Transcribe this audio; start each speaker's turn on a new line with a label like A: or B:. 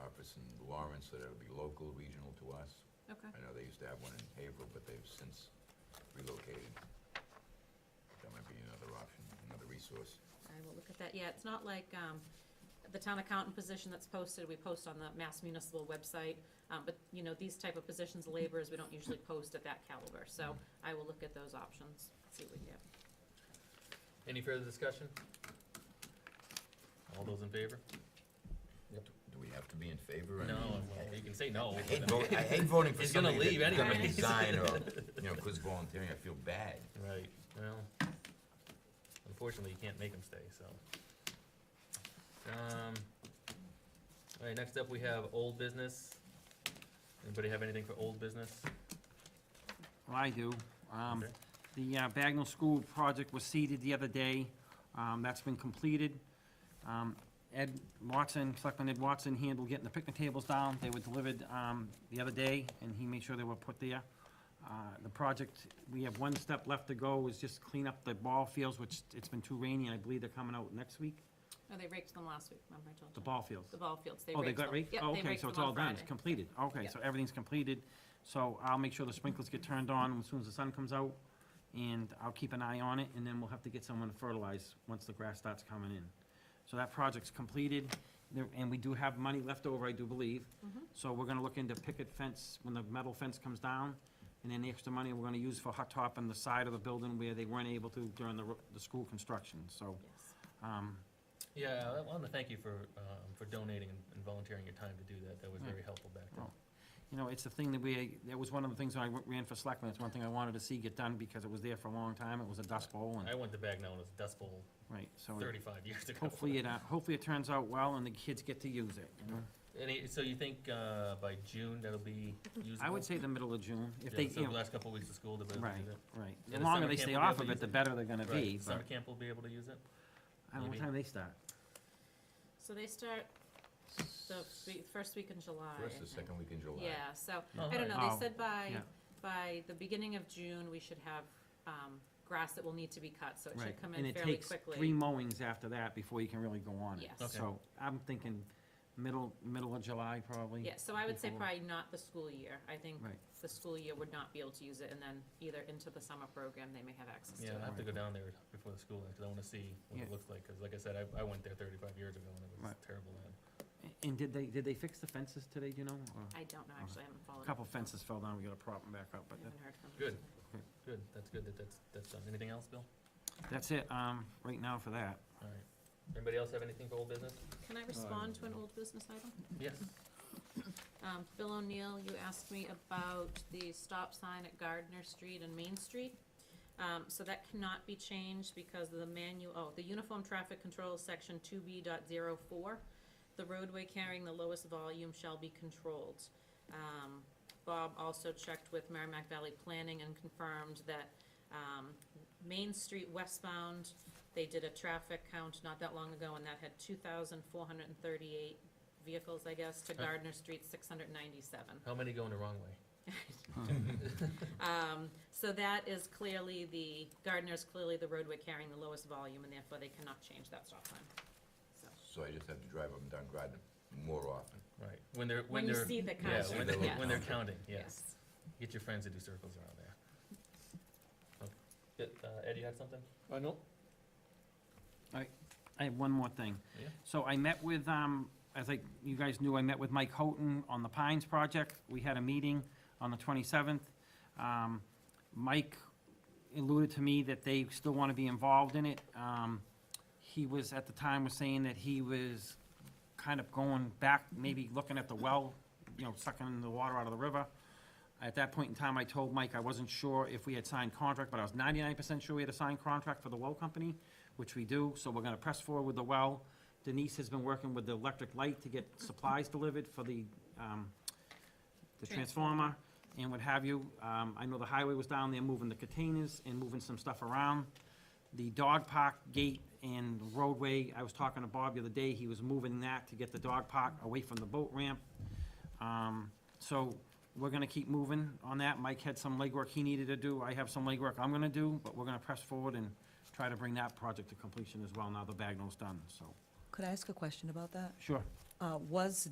A: office in Lawrence, so that would be local, regional to us.
B: Okay,
A: I know they used to have one in Haverhill, but they've since relocated. That might be another option, another resource.
B: I will look at that. Yeah, it's not like, um, the town accountant position that's posted, we post on the Mass Municipal website. Um, but, you know, these type of positions, laborers, we don't usually post at that caliber, so I will look at those options, see what we get.
C: Any further discussion? All those in favor?
A: Do we have to be in favor? I
C: No,
A: mean,
C: well,
A: I-
C: you can say no.
A: I hate voting, I hate voting for
C: He's gonna
A: somebody
C: leave
A: that's gonna
B: anyways.
A: resign or, you know, quit volunteering, I feel bad.
C: Right, well, unfortunately, you can't make them stay, so. Um, all right, next up, we have old business. Anybody have anything for old business?
D: Well, I do. Um,
C: Okay.
D: The uh, Bagnell School project was seeded the other day. Um, That's been completed. Um, Ed Watson, Selectman Ed Watson handled getting the picnic tables down. They were delivered um, the other day, and he made sure they were put there. Uh, The project, we have one step left to go, is just clean up the ball fields, which it's been too rainy, and I believe they're coming out next week,
B: Oh, they raked them last week, remember I told you?
D: the ball fields.
B: The ball fields, they raked
D: Oh,
B: them.
D: they got raked?
B: Yep,
D: Oh,
B: they
D: okay,
B: raked
D: so it's
B: them on
D: all done, it's
B: Friday.
D: completed. Okay, so everything's completed. So I'll make sure the sprinklers get turned on as soon as the sun comes out, and I'll keep an eye on it, and then we'll have to get someone to fertilize once the grass starts coming in. So that project's completed, there- and we do have money left over, I do believe.
B: Mhm.
D: So we're gonna look into picket fence, when the metal fence comes down, and then the extra money we're gonna use for hot top on the side of the building where they weren't able to during the, ro- the school construction, so,
B: Yes.
D: um,
C: Yeah, I want to thank you for, um, for donating and volunteering your time to do that. That was very helpful back then.
D: Oh. You know, it's the thing that we, that was one of the things when I ran for selectmen, it's one thing I wanted to see get done because it was there for a long time, it was a dust bowl
C: I
D: and,
C: went to Bagnell, it was Dust Bowl
D: right, so it-
C: thirty-five years ago.
D: hopefully it, uh, hopefully it turns out well and the kids get to use it, you know?
C: Any, so you think, uh, by June, that'll be usable?
D: I would say the middle of June, if
C: Yeah,
D: they,
C: so
D: you
C: the
D: know,
C: last couple of weeks of school, they'll be able to
D: right,
C: use it.
D: right.
C: the
D: The longer
C: summer
D: they
C: camp
D: stay
C: will be
D: off
C: able
D: of
C: to
D: it,
C: use
D: the
C: it.
D: better they're gonna
C: Right,
D: be,
C: Summer
D: but,
C: camp will be able to use it?
D: I don't know, what
C: maybe.
D: time they start?
B: So they start the be- first week in July.
A: First
B: I
A: the
B: think.
A: second week in July.
B: Yeah, so,
C: Oh,
B: I don't
C: nice.
B: know, they
D: Oh,
B: said by,
D: yeah.
B: by the beginning of June, we should have, um, grass that will need to be cut, so it
D: Right,
B: should come
D: and
B: in
D: it
B: fairly
D: takes
B: quickly.
D: three mowings after that before you can really go on it.
B: Yes. Okay.
D: So I'm thinking middle, middle of July probably.
B: Yeah, so I would say
D: before-
B: probably not the school year, I think
D: Right.
B: the school year would not be able to use it, and then either into the summer program, they may have access to
C: Yeah,
B: it.
C: I have to go down there before the school, because I wanna see what it
D: Yeah.
C: looks like, because like I said, I, I went there thirty-five years ago and it was
D: Right.
C: terrible then.
D: And did they, did they fix the fences today, do you know? or-
B: I don't know, actually, I haven't followed.
D: A
B: up.
D: Couple fences fell down, we gotta prop them back up,
B: I
D: but that-
B: haven't heard from them.
C: Good. Good, that's good that that's, that's done. Anything else, Bill?
D: that's it, um, right now for that.
C: All right. Anybody else have anything for old business?
B: Can I respond to an old business item?
C: Yes.
B: Um, Bill O'Neill, you asked me about the stop sign at Gardner Street and Main Street. Um, so that cannot be changed because of the manual, oh, the Uniform Traffic Control, Section two B dot zero four. The roadway carrying the lowest volume shall be controlled. Um, Bob also checked with Merrimack Valley Planning and confirmed that, um, Main Street westbound, they did a traffic count not that long ago and that had two thousand four hundred and thirty-eight vehicles, I guess, to
C: Huh.
B: Gardner Street, six hundred ninety-seven.
C: How many going the wrong way?
B: Um, so that is clearly the, Gardner is clearly the roadway carrying the lowest volume, and therefore they cannot change that stop sign. So,
A: So I just have to drive up and down Groton more often.
C: Right, when they're, when
B: When you
C: they're.
B: see the
C: yeah,
B: count,
C: when
A: See the
C: they- When they're
A: count.
C: counting, yes.
B: yes.
C: Get your friends to do circles around there. Oh, Good, uh, Ed, you had something?
E: I know,
D: I have one more thing.
C: Yeah.
D: So I met with, um, as I, you guys knew, I met with Mike Houghton on the Pines project. We had a meeting on the twenty-seventh. Um, Mike alluded to me that they still want to be involved in it. Um, he was, at the time, was saying that he was kind of going back, maybe looking at the well, you know, sucking the water out of the river. At that point in time, I told Mike I wasn't sure if we had signed contract, but I was ninety-nine percent sure we had a signed contract for the well company, which we do, so we're gonna press forward with the well. Denise has been working with the electric light to get supplies delivered for the, um, the transformer and what have you. Um, I know the highway was down there moving the containers and moving some stuff around. The dog park gate and roadway, I was talking to Bob the other day, he was moving that to get the dog park away from the boat ramp. Um, so we're gonna keep moving on that. Mike had some legwork he needed to do. I have some legwork I'm gonna do, but we're gonna press forward and try to bring that project to completion as well now the Bagnell's done, so.
F: Could I ask a question about that?
D: Sure.
F: Uh, Was